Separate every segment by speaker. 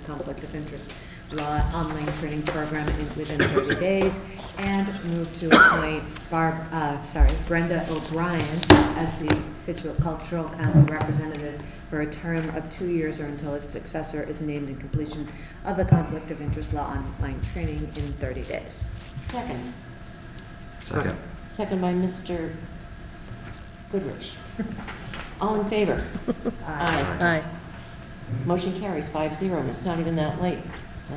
Speaker 1: conflict of interest law online training program in- within 30 days, and move to appoint Barb, uh, sorry, Brenda O'Brien as the Situate Cultural Council representative for a term of two years or until its successor is named and completion of the conflict of interest law online training in 30 days.
Speaker 2: Second,
Speaker 3: Second.
Speaker 2: second by Mr. Goodrich. All in favor?
Speaker 1: Uh,
Speaker 4: Aye.
Speaker 2: Motion carries five zero, and it's not even that late, so.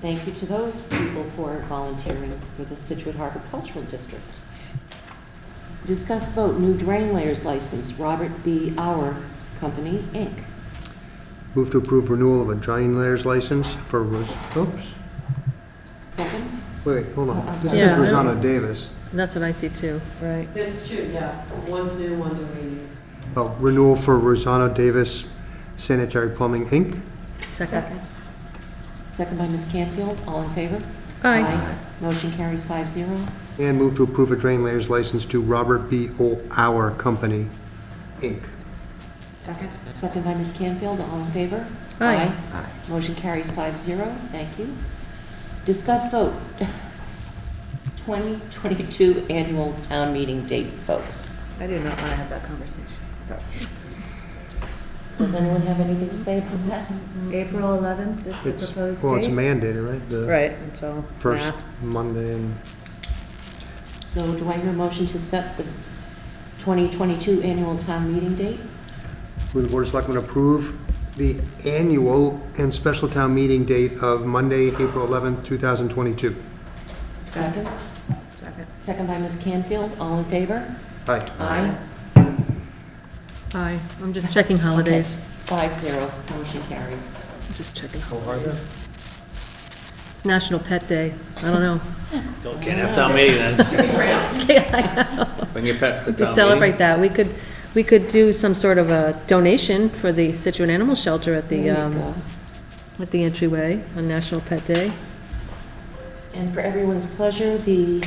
Speaker 2: Thank you to those people for volunteering for the Situate Harbor Cultural District. Discuss vote new drain layers license, Robert B. Our Company, Inc.
Speaker 3: Move to approve renewal of a drain layers license for, Ros- oops,
Speaker 2: Second?
Speaker 3: wait, hold on. This
Speaker 4: Yeah, I
Speaker 3: is
Speaker 4: don't-
Speaker 3: Rosanna Davis.
Speaker 4: That's what I see too. Right.
Speaker 5: There's two, yeah. One's new, one's already.
Speaker 3: Oh, renewal for Rosanna Davis Sanitary Plumbing, Inc.
Speaker 4: Second.
Speaker 2: Second by Ms. Canfield, all in favor?
Speaker 4: Aye.
Speaker 2: Motion carries five zero.
Speaker 3: And move to approve a drain layers license to Robert B. O. Our Company, Inc.
Speaker 1: Second?
Speaker 2: Second by Ms. Canfield, all in favor?
Speaker 4: Aye.
Speaker 2: Motion carries five zero, thank you. Discuss vote 2022 annual town meeting date, folks.
Speaker 1: I do not want to have that conversation, sorry.
Speaker 2: Does anyone have anything to say about that?
Speaker 1: April 11th is the
Speaker 3: It's,
Speaker 1: proposed
Speaker 3: well, it's
Speaker 1: date?
Speaker 3: mandated, right? The
Speaker 4: Right, so.
Speaker 3: First Monday in
Speaker 2: So do I hear a motion to set the 2022 annual town meeting date?
Speaker 3: Will the Board of Selectmen approve the annual and special town meeting date of Monday, April 11th, 2022?
Speaker 2: Second?
Speaker 1: Second.
Speaker 2: Second by Ms. Canfield, all in favor?
Speaker 3: Aye.
Speaker 2: Aye.
Speaker 4: Aye. I'm just checking holidays.
Speaker 2: Five zero, motion carries.
Speaker 4: Just checking holidays. It's National Pet Day. I don't know.
Speaker 6: Don't can't have town meeting then. Bring your pets to
Speaker 4: We
Speaker 6: town
Speaker 4: celebrate
Speaker 6: meeting.
Speaker 4: that. We could, we could do some sort of a donation for the Situate Animal Shelter at the,
Speaker 2: There you
Speaker 4: um,
Speaker 2: go.
Speaker 4: at the entryway on National Pet Day.
Speaker 2: And for everyone's pleasure, the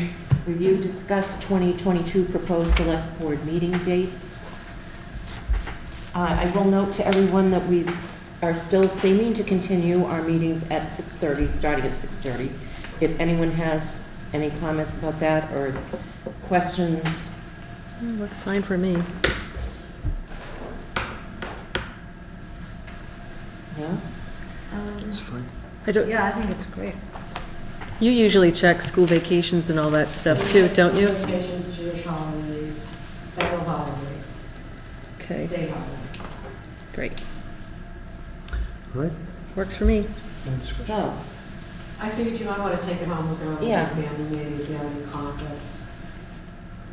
Speaker 2: review discussed 2022 proposed select board meeting dates. Uh, I will note to everyone that we s- are still seeming to continue our meetings at 6:30, starting at 6:30. If anyone has any comments about that or questions,
Speaker 4: Mm, Looks fine for me.
Speaker 2: no?
Speaker 4: Um,
Speaker 3: That's fine.
Speaker 4: I don't,
Speaker 1: Yeah, I think it's great.
Speaker 4: you usually check school vacations and all that stuff too, don't you?
Speaker 5: Vacations, Jewish holidays, federal holidays,
Speaker 4: Okay,
Speaker 5: state holidays.
Speaker 4: great.
Speaker 3: All right?
Speaker 4: Works for me.
Speaker 2: So,
Speaker 5: I figured you might want to take it home with your own
Speaker 2: Yeah.
Speaker 5: family, maybe if you have any conflicts.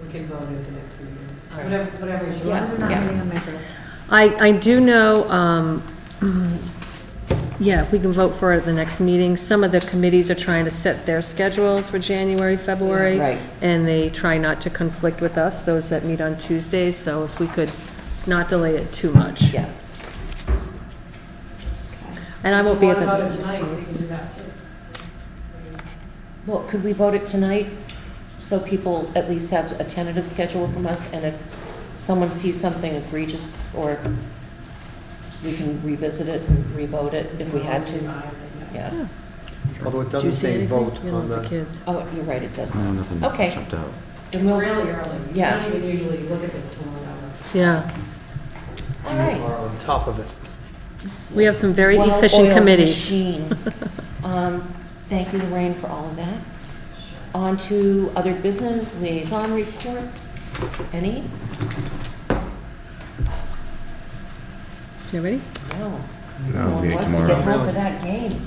Speaker 5: We can vote at the next meeting.
Speaker 2: All right.
Speaker 5: Whatever, whatever you
Speaker 1: As long as we're not
Speaker 2: Yeah.
Speaker 1: meeting on my birthday.
Speaker 4: I, I do know, um, yeah, if we can vote for it at the next meeting. Some of the committees are trying to set their schedules for January, February.
Speaker 2: Right.
Speaker 4: And they try not to conflict with us, those that meet on Tuesdays, so if we could not delay it too much.
Speaker 2: yeah.
Speaker 4: And I won't be at the.
Speaker 5: What about it tonight? We can do that too.
Speaker 2: Well, could we vote it tonight so people at least have a tentative schedule from us? And if someone sees something egregious or we can revisit it and revote it if we had to?
Speaker 5: Revise it, yeah.
Speaker 2: Yeah.
Speaker 3: Although it
Speaker 4: Do you
Speaker 3: doesn't
Speaker 4: see
Speaker 3: say
Speaker 4: anything?
Speaker 3: vote
Speaker 4: You know,
Speaker 3: on
Speaker 4: with
Speaker 3: the,
Speaker 4: kids.
Speaker 2: Oh, you're right, it does
Speaker 7: No,
Speaker 2: not.
Speaker 7: nothing
Speaker 2: Okay.
Speaker 7: jumped out.
Speaker 5: It's
Speaker 2: Then we'll-
Speaker 5: really early. We
Speaker 2: Yeah.
Speaker 5: don't even usually look at this till whatever.
Speaker 4: Yeah,
Speaker 2: All
Speaker 3: you
Speaker 2: right.
Speaker 3: are on top of it.
Speaker 4: we have some very
Speaker 2: Well-oiled
Speaker 4: efficient committees.
Speaker 2: machine. Um, Thank you, Lorraine, for all of that. On to other business liaison reports. Any?
Speaker 4: You ready?
Speaker 2: No.
Speaker 7: No,
Speaker 2: one
Speaker 7: meeting
Speaker 2: wants to
Speaker 7: tomorrow.
Speaker 2: get home for that game.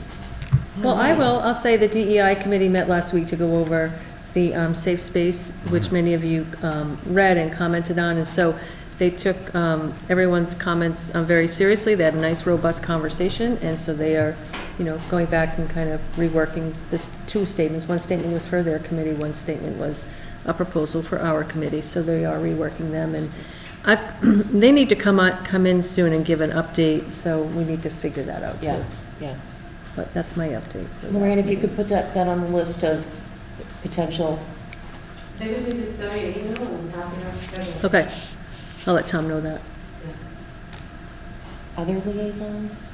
Speaker 4: Well, I will, I'll say the DEI committee met last week to go over the um, safe space, which many of you um, read and commented on, and so they took um, everyone's comments uh, very seriously, they had a nice robust conversation, and so they are, you know, going back and kind of reworking this, two statements, one statement was for their committee, one statement was a proposal for our committee, so they are reworking them, and I've, they need to come on, come in soon and give an update, so we need to figure that out, too.
Speaker 2: Yeah, yeah.
Speaker 4: But that's my update. for that
Speaker 2: Lorraine, if you
Speaker 4: meeting.
Speaker 2: could put that, that on the list of potential,
Speaker 5: They just need to send me an email and happy to schedule.
Speaker 4: Okay, I'll let Tom know that.
Speaker 5: Yeah.
Speaker 2: other liaisons?